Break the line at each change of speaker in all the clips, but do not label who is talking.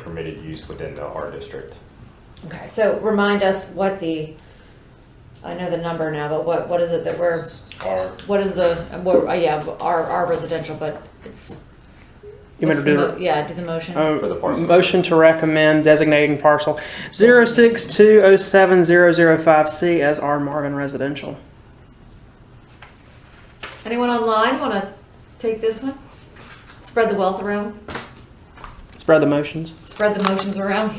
permitted use within the R district.
Okay, so remind us what the, I know the number now, but what, what is it that we're,
R,
what is the, what, uh, yeah, our, our residential, but it's.
You
what's
want me
the
to do Um, uh,
mo- Yeah, do the motion.
For the parcel.
Motion to recommend designating parcel 062070005C as R Marvin Residential.
Anyone online wanna take this one? Spread the wealth around,
Spread the motions.
spread the motions around.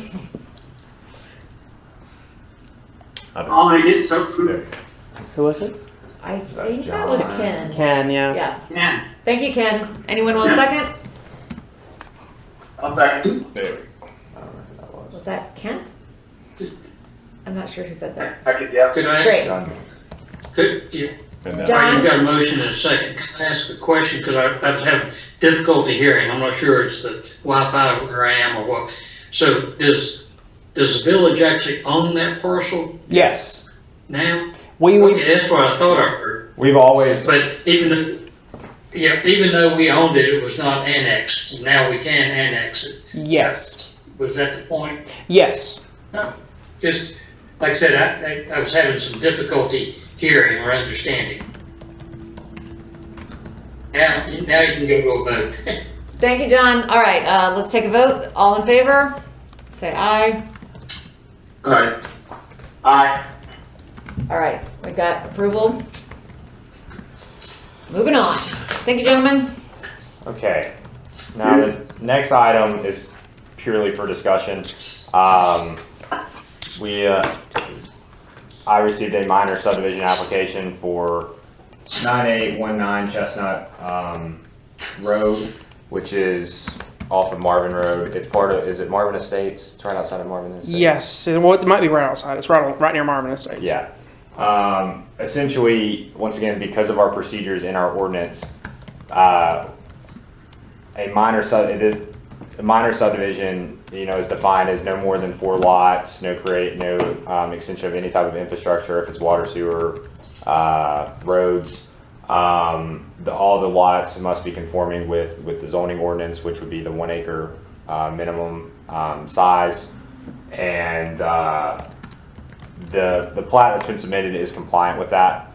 I don't,
I'll make it, so
there,
Who was it?
I think that was
John?
Ken.
Ken, yeah.
Yeah,
Ken,
thank you, Ken. Anyone want a second?
I'll back you.
there. I don't know who that was.
Was that Kent? I'm not sure who said that.
Second, yeah.
Could I ask,
Great.
John.
could, you,
And then-
John?
you've got a motion and a second, can I ask a question, because I, I've had difficulty hearing, I'm not sure it's the Wi-Fi where I am or what. So does, does the village actually own that parcel
Yes.
now?
We, we,
Okay, that's what I thought I heard,
We've always,
but even though, yeah, even though we owned it, it was not annexed, now we can annex it.
yes.
Was that the point?
Yes.
Just, like I said, I, I- I was having some difficulty hearing or understanding. Now, now you can go to a vote.
Thank you, John. All right, uh, let's take a vote. All in favor? Say aye.
Aye. Aye.
All right, we got approval. Moving on. Thank you, gentlemen.
okay. Now, the next item is purely for discussion. Um, we, uh, I received a minor subdivision application for nine eight one nine Chestnut, um, Road, which is off of Marvin Road. It's part of, is it Marvin Estates? It's right outside of Marvin Estates.
Yes. And Well, it might be right outside. It's right on, right near Marvin Estates.
Yeah. Um, essentially, once again, because of our procedures in our ordinance, uh, a minor sub, it is- a minor subdivision, you know, is defined as no more than four lots, no create, no, um, extension of any type of infrastructure, if it's water, sewer, uh, roads. Um, the, all the lots must be conforming with, with the zoning ordinance, which would be the one acre, uh, minimum, um, size. And, uh, the, the plat that's been submitted is compliant with that.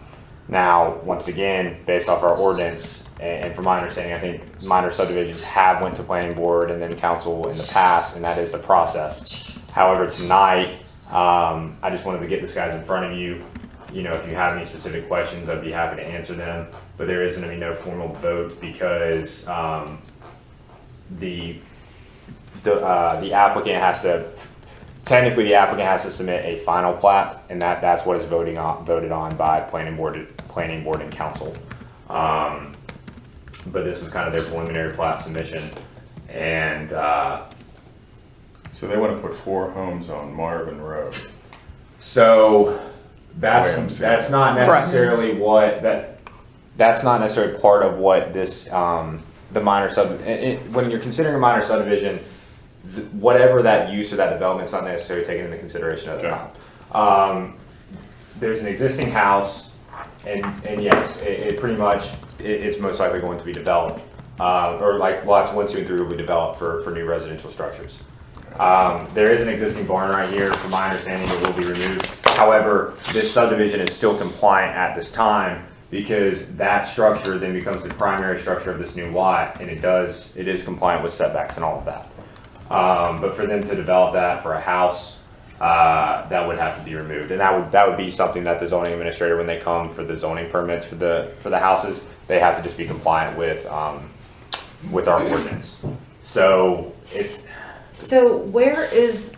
Now, once again, based off our ordinance, and, and from my understanding, I think minor subdivisions have went to planning board and then council in the past, and that is the process. However, tonight, um, I just wanted to get this guys in front of you. You know, if you have any specific questions, I'd be happy to answer them, but there is gonna be no formal vote because, um, the, the, uh, the applicant has to technically the applicant has to submit a final plat, and that, that's what is voting on, voted on by planning board, planning board and council. Um, but this is kind of their preliminary plat submission, and, uh,
So they want to put four homes on Marvin Road.
So
Way I'm
that's,
seeing
that's not
Correct.
necessarily what, that, that's not necessarily part of what this, um, the minor sub, it- it- when you're considering a minor subdivision, th- whatever that use or that development's not necessarily taken into consideration at the
Okay.
time. Um, there's an existing house, and, and yes, it, it pretty much, it, it's most likely going to be developed. Uh, or like lots one, two, and three will be developed for, for new residential structures. Um, there is an existing barn right here, from my understanding, it will be removed. However, this subdivision is still compliant at this time because that structure then becomes the primary structure of this new lot and it does, it is compliant with setbacks and all of that. Um, but for them to develop that for a house, uh, that would have to be removed. And that would, that would be something that the zoning administrator, when they come for the zoning permits for the, for the houses, they have to just be compliant with, um, with our ordinance. So it's,
So where is,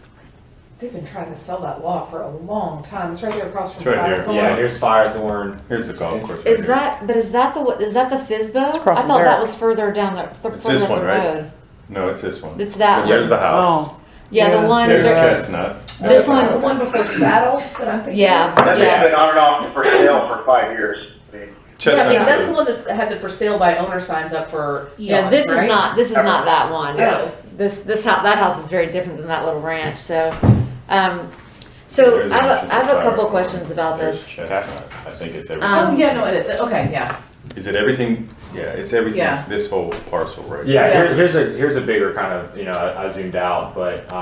They've been trying to sell that law for a long time. It's right there across from
It's right
Firethorn.
yeah, here's Firethorn.
Here's the golf course. right
is
here.
that, but is that the, is that the FISBO? I
across
thought
from
that
Barrett.
was further down the, the-
It's
further
this
up the
one, right?
road.
No, it's this one.
It's that
There's
one.
the house.
Oh.
Yeah,
Yeah.
the one,
There's
there-
Chestnut.
this one,
The one before Saddle that I'm thinking
yeah,
of.
That's
yeah.
been on and off for sale for five years. I mean,
Yeah, I mean, that's the
Chestnut's
one that's had the for sale by owner signs up for
Yeah,
eons,
this is
right?
not, this is not that one.
No.
This, this house, that house is very different than that little ranch, so, um, so
There's
I have,
an
I have a couple
interesting
questions about
there's
this.
Chestnut. I think it's
Um,
everything.
Oh, yeah, no, it is. Okay, yeah.
Is it everything? Yeah, it's everything,
Yeah.
this whole parcel right here.
Yeah,
Yeah.
here, here's a here's a bigger kind of you know I, I zoomed out, but